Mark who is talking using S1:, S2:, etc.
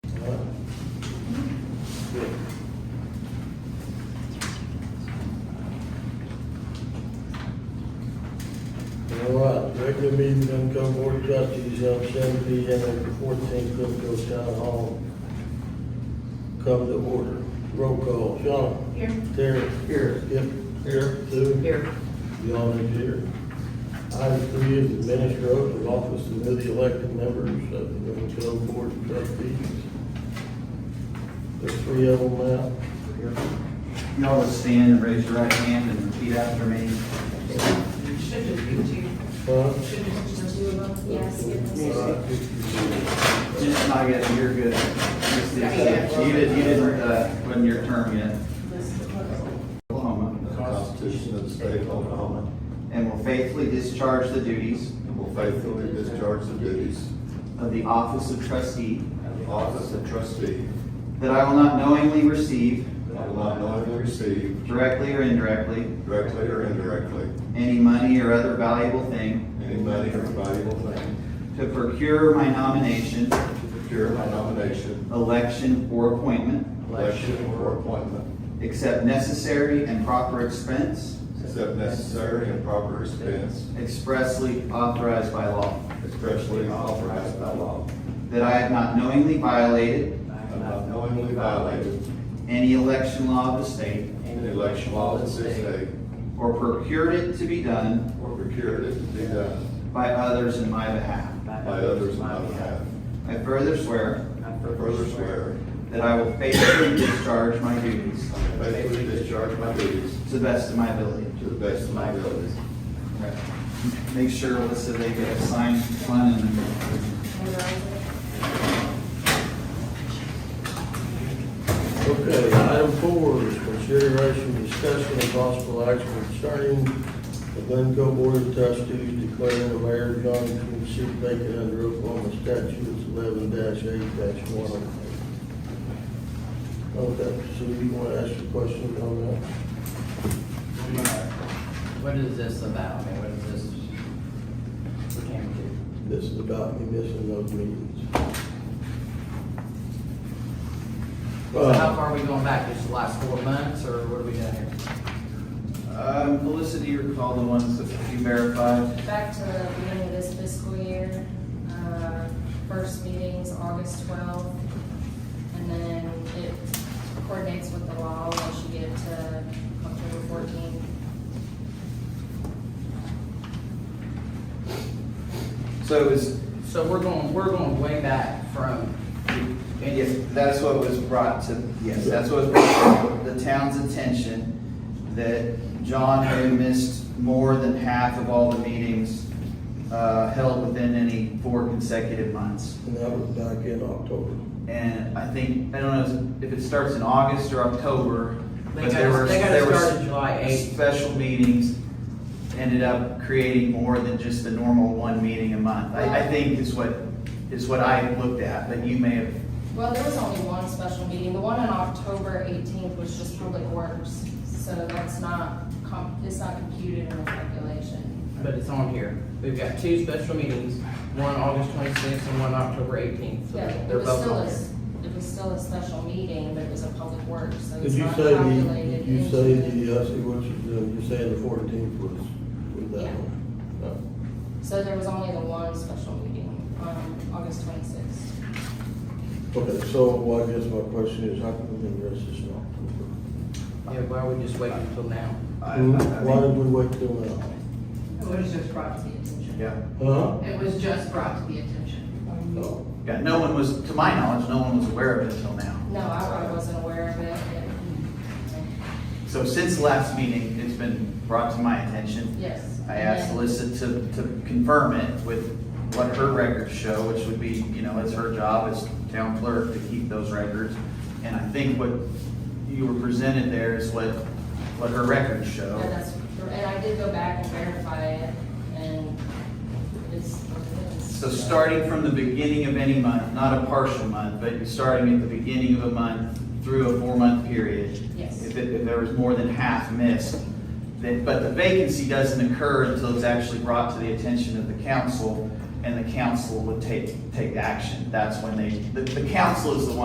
S1: well. All right, regular meeting, Duncombe Board of Trustees, held seven P M at the fourteenth Clipco Town Hall. Come to order. Roll call, Sean.
S2: Here.
S1: Terry. Here. Skip. Here. Sue.
S2: Here.
S1: Beyond is here. Item three is administer oath of office to newly elected members of the Duncombe Board of Trustees. There's three of them now.
S3: Y'all would stand and raise your right hand and repeat after me.
S2: Should just be two.
S1: Huh?
S2: Should just be two of them.
S4: Yes, give us a-
S1: All right, just-
S3: Just not yet, you're good. Just- You didn't, you didn't, uh, wasn't your term yet.
S5: The
S3: Oklahoma.
S5: Constitution of the State of Oklahoma,
S3: And will faithfully discharge the duties
S5: and will faithfully discharge the duties
S3: of the office of trustee.
S5: of the office of trustee.
S3: That I will not knowingly receive,
S5: I will not knowingly receive,
S3: directly or indirectly,
S5: directly or indirectly,
S3: any money or other valuable thing
S5: any money or valuable thing
S3: to procure my nomination,
S5: to procure my nomination,
S3: election, or appointment,
S5: election, or appointment,
S3: except necessary and proper expense
S5: except necessary and proper expense,
S3: expressly authorized by law.
S5: especially authorized by law.
S3: That I have not knowingly violated
S5: I have not knowingly violated
S3: any election law of the state
S5: any election law of the state
S3: or procured it to be done
S5: or procured it to be done
S3: by others in my behalf.
S5: by others on my behalf.
S3: I further swear
S5: I further swear
S3: that I will faithfully discharge my duties
S5: Faithfully discharge my duties
S3: to the best of my ability.
S5: to the best of my abilities.
S3: Make sure, Alyssa, they get assigned one and
S1: Okay, item four is consideration, discussion, and possible action concerning the Glencoe Board of Trustees declaring the mayor of Johnson seat vacant under Oklahoma statutes eleven eight one. Okay, so you want to ask a question on that?
S6: What is this about? I mean, what is this pertaining to?
S1: This is about me missing those meetings.
S6: So how
S1: Uh,
S6: far are we going back? Just the last four months, or what are we doing here?
S3: Um, Alyssa, do you recall the ones that you verified?
S4: Back to the beginning of this fiscal year, uh, first meeting's August twelfth, and then it coordinates with the law once you get to October fourteenth.
S3: So it was,
S6: So we're going, we're going way back from,
S3: and yes, that's what was brought to, yes, that's what was brought to the town's attention, that John had missed more than half of all the meetings uh, held within any four consecutive months.
S1: Uh, And that was back in October.
S3: And I think, I don't know if it starts in August or October,
S6: They
S3: but
S6: got
S3: there
S6: us-
S3: were.
S6: they got us
S3: there were
S6: started July 8th.
S3: Special meetings ended up creating more than just the normal one meeting a month. I, I think is what, is what I looked at, but you may have,
S4: Well, there was only one special meeting, the one on October eighteenth was just public works, so that's not, com- it's not computed in the calculation.
S6: but it's on here. We've got two special meetings, one August twenty-sixth and one October eighteenth.
S4: Yeah, it
S6: They're
S4: was
S6: both
S4: still
S6: on
S4: a,
S6: here.
S4: it was still a special meeting, but it was a public works, so
S1: Did
S4: it's
S1: you
S4: not
S1: say
S4: calculated.
S1: the, did you
S4: into
S1: say
S4: the-
S1: the, uh, I see what you did, you say the fourteenth was, was that
S4: Yeah.
S1: one? Uh, No.
S4: So there was only the one special meeting on August twenty-sixth.
S1: Okay, so, well, I guess my question is, how come we didn't address this in October?
S6: Yeah, why are we just waiting until now?
S3: I-
S1: Mm-hmm.
S3: I- I
S1: Why did
S3: think-
S1: we wait till now?
S2: It was just brought to the attention.
S3: yeah.
S1: Huh?
S2: It was just brought to the attention.
S1: No.
S3: Yeah, no one was, to my knowledge, no one was aware of it until now.
S4: No, I I wasn't aware of it, but, mm,
S3: So since last meeting, it's been brought to my attention.
S4: yes.
S3: I asked Alyssa to, to confirm it with what her records show, which would be, you know, it's her job as town clerk to keep those records. And I think what you were presented there is what, what her records show.
S4: And that's, and I did go back and verify it, and it's.
S3: So starting from the beginning of any month, not a partial month, but starting at the beginning of a month through a four-month period.
S4: Yes.
S3: If, it- if there was more than half missed, then, but the vacancy doesn't occur until it's actually brought to the attention of the council, and the council would take, take action. That's when they, the, the council is the one.